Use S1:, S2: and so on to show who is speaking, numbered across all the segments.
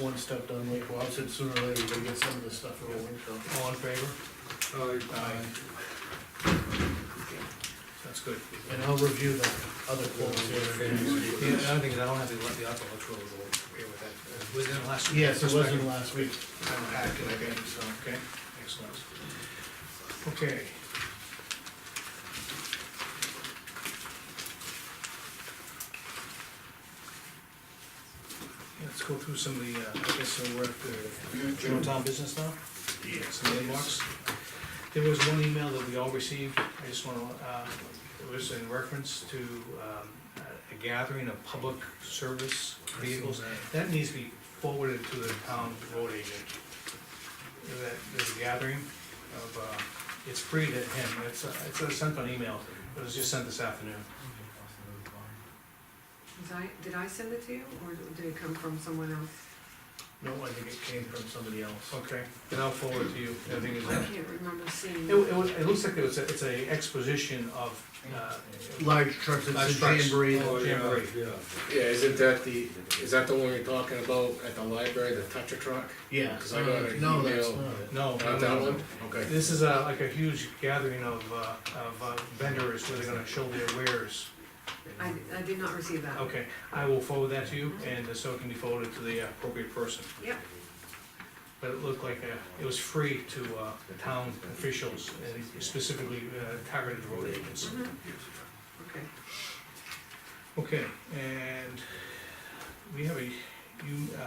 S1: one step done, like Bob said, sooner or later, we gotta get some of this stuff rolling, so.
S2: All in favor?
S1: Aye. That's good, and I'll review the other quotes here.
S2: The other thing is I don't have the, the architectural rule here with that, Uh, was it in the last?
S1: Yes, it
S2: Perspective.
S1: wasn't last week, I'm packed it again, so, okay.
S2: Excellent. Okay. Let's go through some of the, uh, I guess, some work, uh, general town business now? Yes. Some inbox. There was one email that we all received, I just wanna, uh, it was in reference to, um, a gathering of public service vehicles. That needs to be forwarded to the town road agent that there's a gathering of, uh, it's free to him, it's, uh, it's uh, sent on email, it was just sent this afternoon.
S3: Was I, did I send it to you, or did it come from someone else?
S1: No, I think it came from somebody else.
S2: Okay, then I'll forward it to you, I think it's,
S3: I
S2: it,
S3: can't remember seeing.
S2: it, was- it looks like it was, a- it's a exposition of, uh,
S1: Large trucks,
S2: Large
S1: it's a
S2: trucks.
S1: jamboree.
S2: Oh, yeah. Jamboree.
S4: Yeah, isn't that the, is that the one you're talking about at the library, the toucher truck?
S1: Yeah,
S4: Because I got
S1: uh,
S4: an
S1: no, that's
S4: email.
S1: not it.
S2: no.
S4: Not that one? Okay.
S2: This is a, like a huge gathering of, uh, of uh, vendors where they're gonna show their wares.
S3: I, I did not receive that.
S2: Okay, I will forward that to you, and so it can be forwarded to the appropriate person.
S3: Yep.
S2: But it looked like, uh, it was free to, uh, town officials, and specifically, uh, targeted road agents.
S3: Mhm. Okay,
S2: Okay, and we have a, you, uh,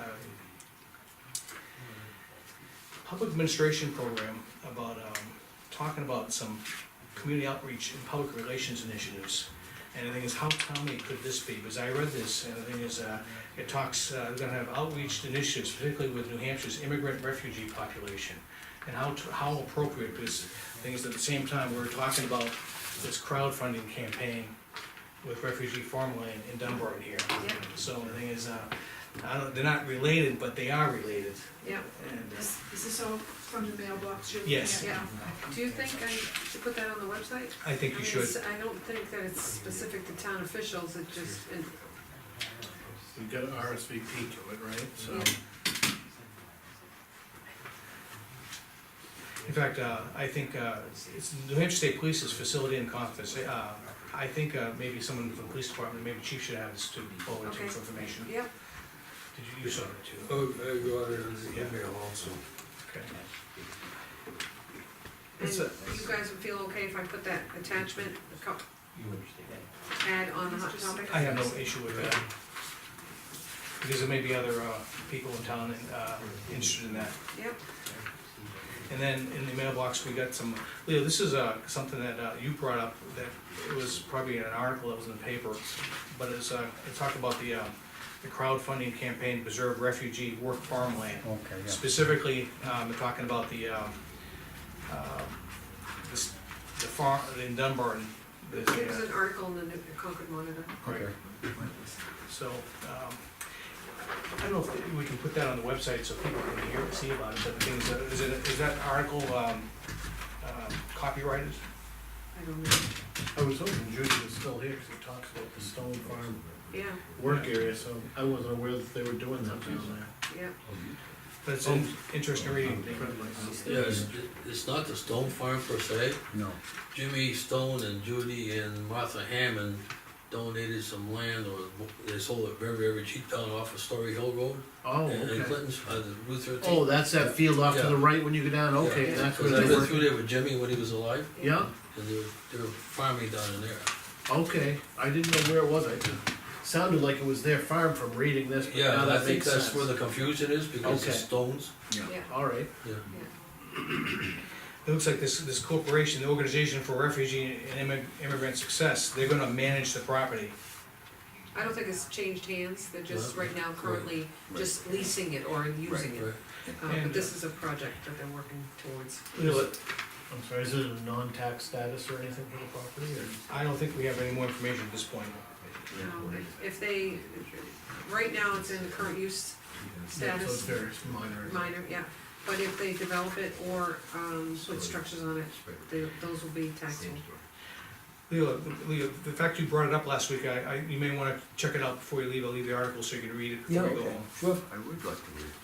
S2: public administration program about, um, talking about some community outreach and public relations initiatives. And the thing is, how timely could this be? Because I read this, and the thing is, uh, it talks, uh, they're gonna have outreach initiatives, particularly with New Hampshire's immigrant refugee population. And how, t- how appropriate, because the thing is, at the same time, we're talking about this crowdfunding campaign with refugee farmland in Dunbar here.
S3: Yeah.
S2: So the thing is, uh, I don't, they're not related, but they are related,
S3: yeah.
S2: and, uh,
S5: Is, is this all from the mailbox? you're
S2: Yes.
S5: looking at now?
S3: Do you think I should put that on the website?
S2: uh, I
S3: I
S2: think
S3: mean,
S2: you should.
S3: it's- I don't think that it's specific to town officials, it just, it-
S1: We've got an RSVP to it, right, so.
S3: Yeah.
S2: In fact, uh, I think, uh, it's New Hampshire State Police's facility and conference, uh, I think, uh, maybe someone from the police department, maybe chief should have this to forward to
S3: Okay.
S2: for information.
S3: yeah,
S2: Did you, you saw it too?
S6: Oh, I got it on the email also.
S2: Okay.
S3: and
S2: It's a-
S3: you guys would feel okay if I put that attachment, the co- add on the hot topic?
S2: I have no issue with that. Because there may be other, uh, people in town, uh, interested in that.
S3: Yep,
S2: And then in the mailbox, we got some, Leo, this is, uh, something that, uh, you brought up, that it was probably an article that was in the paper, but it's, uh, it talked about the, uh, the crowdfunding campaign, to preserve refugee work farmland.
S7: Okay, yeah.
S2: Specifically, um, they're talking about the, um, uh, this, the farm, in uh, Dunbar, there's
S3: there was
S2: a,
S3: an article in the New- Concord Monitor.
S7: Okay.
S2: so, um, I don't know if we can put that on the website so people can hear, see about it, but the thing is, uh, is it, is that article, um, um, copyrighted?
S3: I don't know,
S1: I was hoping Judy was still here, cause it talks about the stone farm
S3: yeah,
S1: work area, so I wasn't aware that they were doing that down
S3: yeah,
S2: But it's an interesting reading.
S1: there.
S8: Yeah, it's, it's not the Stone Farm per se.
S7: No,
S8: Jimmy Stone and Judy and Martha Hammond donated some land or they sold it very, very cheap down off of Story Hill Road.
S1: Oh,
S8: and- And
S1: okay.
S8: Clinton's, uh, the Route thirteen.
S1: Oh, that's that field off to the
S8: Yeah.
S1: right when you go down, okay,
S8: Yeah.
S1: that's where
S8: Cause I
S1: they
S8: been
S1: were,
S8: through there with Jimmy when he was alive,
S1: yeah,
S8: and they were, they were farming down in there.
S1: okay, I didn't know where it was, I, sounded like it was their farm from reading this, but
S8: Yeah,
S1: now
S8: and I
S1: that
S8: think
S1: makes
S8: that's
S1: sense.
S8: where the confusion is, because
S1: Okay.
S8: it's stones,
S3: yeah,
S1: Alright,
S8: yeah.
S3: yeah.
S2: It looks like this, this corporation, the Organization for Refugee and Immi- Immigrant Success, they're gonna manage the property.
S3: I don't think it's changed hands, they're just
S8: Right.
S3: right now currently just leasing it or using it.
S8: Right.
S3: Uh,
S2: And,
S3: but this is a project that they're working towards.
S1: I'm sorry, is it a non-tax status or anything for the property, or?
S2: I don't think we have any more information at this point.
S3: Um, if- If they, right now it's in current use
S1: So it's
S3: status,
S1: very minor.
S3: minor, yeah. But if they develop it or, um, put structures on it, they, those will be taxable.
S2: Leo, Leo, the fact you brought it up last week, I, I, you may wanna check it out before you leave, I'll leave the article so you can read it before you go home.
S7: I would like to read.